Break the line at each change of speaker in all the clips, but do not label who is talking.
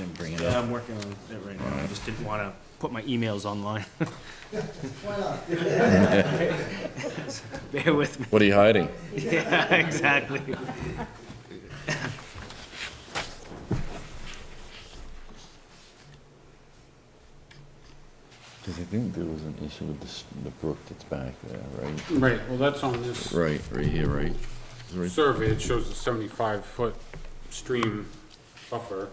I'm working on it right now, I just didn't wanna put my emails online.
Why not?
Bear with me.
What are you hiding?
Yeah, exactly.
Because I think there was an issue with this, the brook that's back there, right?
Right, well, that's on this
Right, right here, right? Right.
survey, it shows a seventy-five foot stream buffer.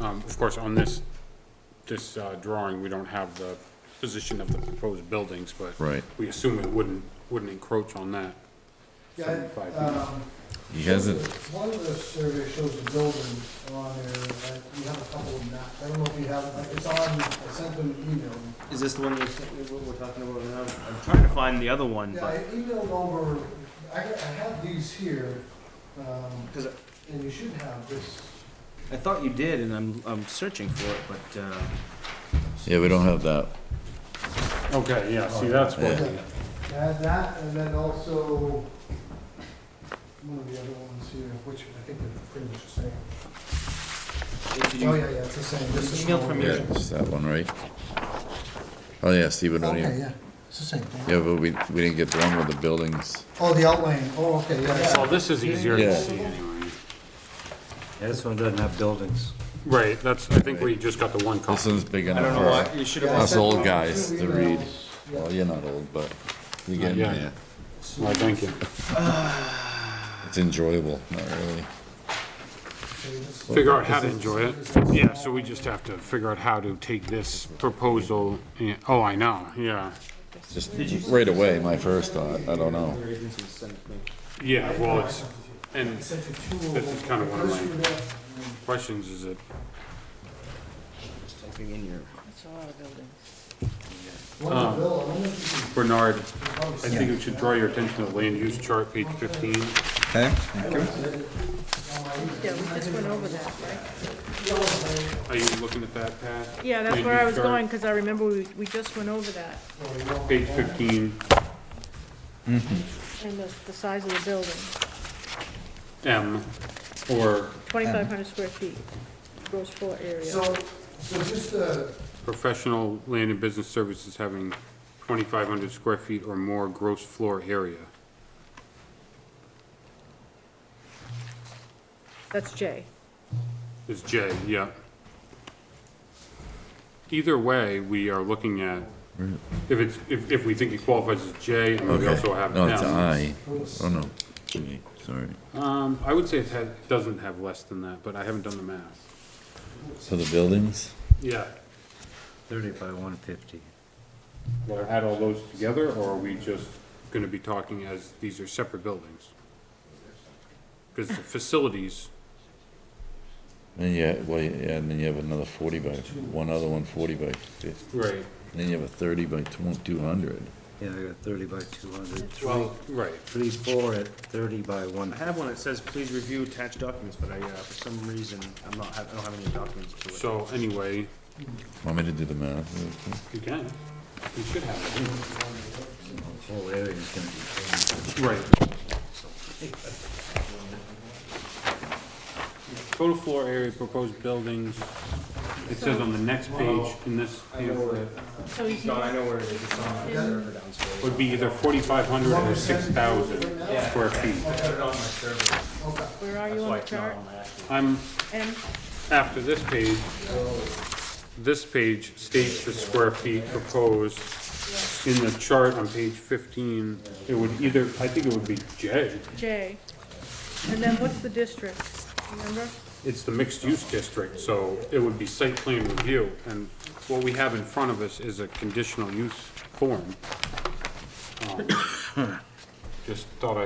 Um, of course, on this, this, uh, drawing, we don't have the position of the proposed buildings, but
Right.
we assume it wouldn't, wouldn't encroach on that.
Yeah,
75 feet.
um,
He hasn't,
One of the surveys shows the buildings on there, uh, you have a couple of maps, I don't know if you have, like, it's on, I sent them an email.
Is this the one we're, we're talking about now? I'm trying to find the other one,
Yeah, I
but,
emailed over, I, I have these here, um,
cause
and you should have this.
I thought you did, and I'm, I'm searching for it, but, uh,
yeah, we don't have that.
Okay, yeah, see, that's what,
Yeah.
I had that, and then also, one of the other ones here, which I think they're pretty much the same.
did
Oh,
you,
yeah, yeah, it's the same. This is
Email
the
from
one.
Yeah, it's that one, right? Oh, yeah, Steve, we don't
Okay,
even,
yeah, it's the same thing.
yeah, but we, we didn't get the one with the buildings.
Oh, the outline, oh, okay, yeah, yeah.
well, this is easier
Yeah.
to see anyway.
Yeah, this one doesn't have buildings.
Right, that's, I think we just got the one
This
copy.
one's big
I don't
enough
know why,
for
you should
Yeah, I
have,
us
sent
old
them
guys
two
to read.
emails. Yeah.
Well, you're not old, but you're getting
yeah.
there.
Why, thank you.
It's enjoyable, not really.
Figure out how to enjoy it. Yeah, so we just have to figure out how to take this proposal, and- oh, I know, yeah.
Just right away, my first thought, I don't know.
your agency sent me.
Yeah, well, it's, and
I sent you two of
This
them.
is kinda one of
This
mine.
one there.
questions is it,
Just typing in your.
That's a lot of buildings.
One of the bill, I
Um,
wonder if you
Bernard,
can probably
I think it should draw your attention to the land use chart, page fifteen.
Okay.
Yeah, we just went over that, right?
Are you looking at that, Pat?
Yeah, that's
Land
where I
use
was
chart,
going, because I remember we, we just went over that,
Page fifteen,
and the, the size of the building,
M, or
twenty-five hundred square feet, gross floor area.
So, so just, uh,
professional land and business services having twenty-five hundred square feet or more gross floor area.
That's J.
Is J, yeah. Either way, we are looking at, if it's, if, if we think it qualifies as J, and we also have
No, it's
M.
I. Oh, no. G, Sorry.
Um, I would say it had, doesn't have less than that, but I haven't done the math.
So the buildings?
Yeah.
Thirty by one fifty.
Well, add all those together, or are we just gonna be talking as, these are separate buildings? Cause the facilities,
And yeah, well, yeah, and then you have another forty by, one other one forty by fifty.
right,
And then you have a thirty by two hundred.
Yeah, I got thirty by two hundred.
well, right,
Three, four at thirty by one.
I have one that says, please review attached documents, but I, uh, for some reason, I'm not, I don't have any documents to it.
so anyway,
Want me to do the math? real quick?
you can, you should have
The Whole area is gonna be.
it. Right. Total floor area proposed buildings, it says on the next page in this pamphlet,
So you
John, I know where it is, it's on my server downstairs.
would be either forty-five hundred or six thousand square feet.
I put it on my server,
where are you
that's
on
why
the
it's not
chart?
on my actual.
I'm
M,
after this page, this page states the square feet proposed. In the chart on page fifteen, it would either, I think it would be J,
J. And then what's the district, remember?
it's the mixed-use district, so it would be site plan review. And what we have in front of us is a conditional use form. Um, Just thought I.